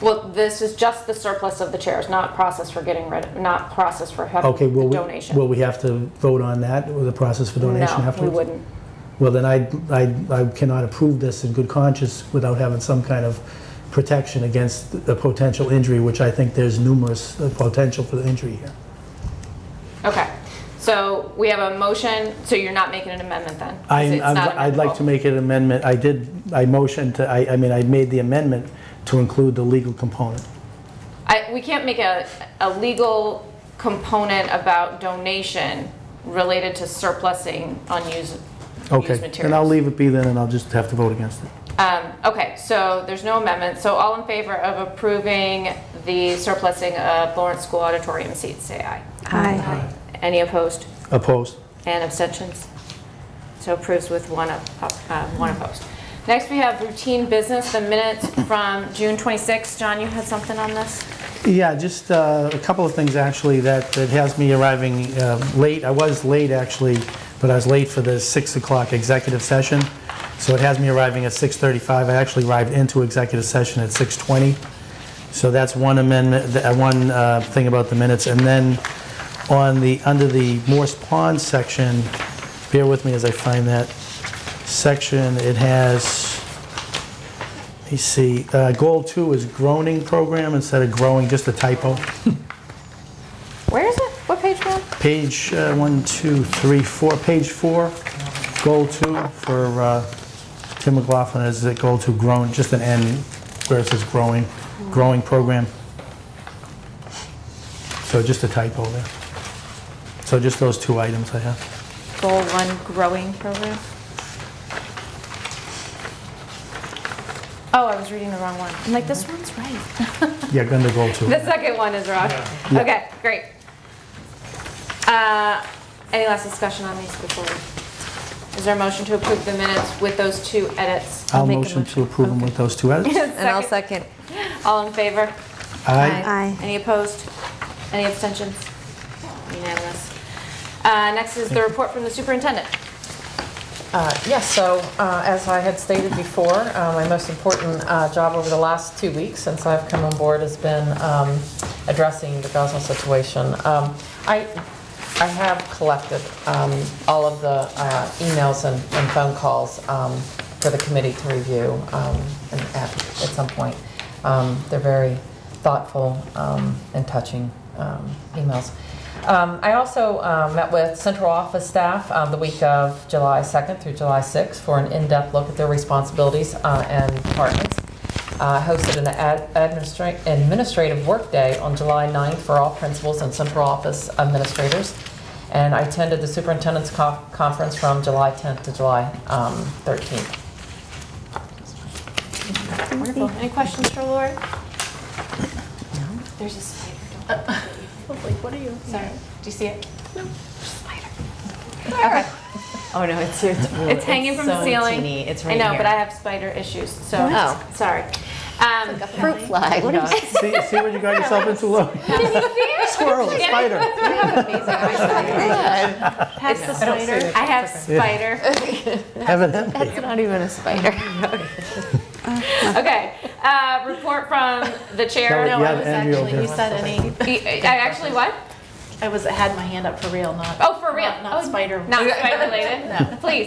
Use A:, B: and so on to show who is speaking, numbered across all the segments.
A: Well, this is just the surplus of the chairs, not process for getting rid, of, not process for having
B: Okay, will
A: the
B: we,
A: donation.
B: will we have to vote on that, or the process for donation afterwards?
A: No, we wouldn't.
B: Well, then I, I, I cannot approve this in good conscience without having some kind of protection against a potential injury, which I think there's numerous uh, potential for the injury here.
A: Okay, so we have a motion, so you're not making an amendment then? 'cause
B: I,
A: it's not
B: I'd like to
A: amendable.
B: make an amendment, I did, I motioned to, I, I mean, I made the amendment to include the legal component.
A: I, we can't make a, a legal component about donation related to surplusing unused, used
B: Okay, and I'll
A: materials.
B: leave it be then, and I'll just have to vote against it.
A: Um, okay, so there's no amendment, so all in favor of approving the surplusing of Lawrence School auditorium seats, say aye.
C: Aye.
A: Any opposed?
B: Opposed?
A: And abstentions? So approves with one op- op- uh, one opposed. Next, we have routine business, the minutes from June 26. John, you had something on this?
B: Yeah, just uh, a couple of things, actually, that, that has me arriving uh, late. I was late, actually, but I was late for the 6 o'clock executive session, so it has me arriving at 6:35. I actually arrived into executive session at 6:20. So that's one amendment, th- uh, one uh, thing about the minutes. And then on the, under the Morse Pond section, bear with me as I find that section, it has, let me see, uh, goal two is groaning program instead of growing, just a typo.
A: Where is it? What page, John?
B: Page uh, one, two, three, four, page four, goal two for uh, Tim McLaughlin is that goal two grown, just an N where it says growing, growing program. So just a typo there. So just those two items I have.
A: Goal one growing program? Oh, I was reading the wrong one. I'm like, this one's right.
B: Yeah, under goal two.
A: The second one is wrong. Okay, great. Uh, Any last discussion on these before? we- Is there a motion to approve the minutes with those two edits?
B: I'll
C: make a
B: motion to
C: motion.
B: approve them with those two edits.
C: And I'll second.
A: All in favor?
B: Aye.
C: Aye.
A: Any opposed? Any abstentions? Unanimous. Uh, Next is the report from the superintendent.
D: Uh, Yes, so uh, as I had stated before, uh, my most important uh, job over the last two weeks since I've come on board has been um, addressing the Gaza situation. Um, I I have collected um, all of the uh, emails and and phone calls um, for the committee to review um, and at at some point. Um, They're very thoughtful um, and touching um, emails. Um, I also um, met with central office staff um, the week of July 2nd through July 6th for an in-depth look at their responsibilities uh, and departments. Uh, hosted an ad- administra- administrative workday on July 9th for all principals and central office administrators. And I attended the superintendent's co- conference from July 10th to July um, 13th.
A: Wonderful. Any questions for Lori? There's a spider. Don't look at me. Sorry. Do you see it? No. Spider. Okay.
E: Oh no, it's it's,
A: It's hanging from the
E: so
A: ceiling.
E: teeny. It's
A: I
E: right
A: know,
E: here.
A: but I have spider issues, so,
E: Oh.
A: sorry.
B: Oh.
A: Um,
E: fruit fly. What is it?
B: See see what you got yourself into, Lou? Squirrel, spider.
A: It's the
D: don't see
A: spider.
D: it.
A: I have spider.
B: Evidently.
E: It's not even a spider.
A: Okay, uh, report from the chair.
B: No,
F: No, I
B: Yeah,
F: was
B: Andrea over
F: actually, you
B: here.
F: said any,
A: I actually, what?
F: I was, had my hand up for real, not.
A: Oh, for real?
F: Not- Not
A: Oh,
F: spider.
A: Not spider related? No. Please.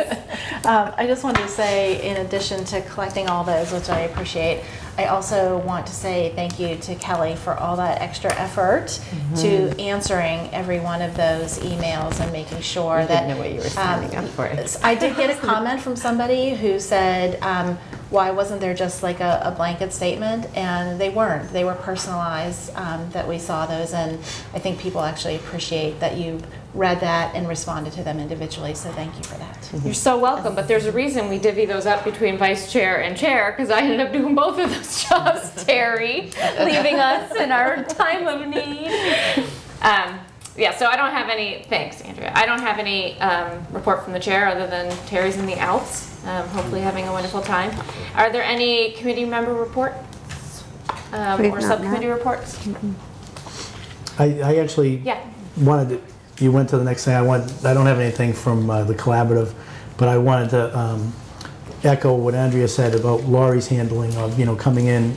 F: Um, I just wanted to say, in addition to collecting all those, which I appreciate, I also want to say thank you to Kelly for all that extra effort to
E: Mm-hmm.
F: answering every one of those emails and making sure
E: I
F: that. um,
E: didn't know what you were signing up for.
F: S- I did get a comment from somebody who said, um, why wasn't there just like a, a blanket statement? And they weren't. They were personalized um, that we saw those. And I think people actually appreciate that you read that and responded to them individually. So thank you for that.
C: Mm-hmm.
A: You're so welcome, but there's a reason we divvy those up between vice chair and chair, because I ended up doing both of those jobs, Terry, leaving us in our time of need. Um, yeah, so I don't have any, thanks, Andrea. I don't have any um, report from the chair other than Terry's in the Alps, um, hopefully having a wonderful time. Are there any committee member reports um,
C: We've
A: or
C: not met.
A: subcommittee reports?
B: I, I actually
A: Yeah.
B: wanted to, you went to the next thing. I want, I don't have anything from uh, the collaborative, but I wanted to um, echo what Andrea said about Laurie's handling of, you know, coming in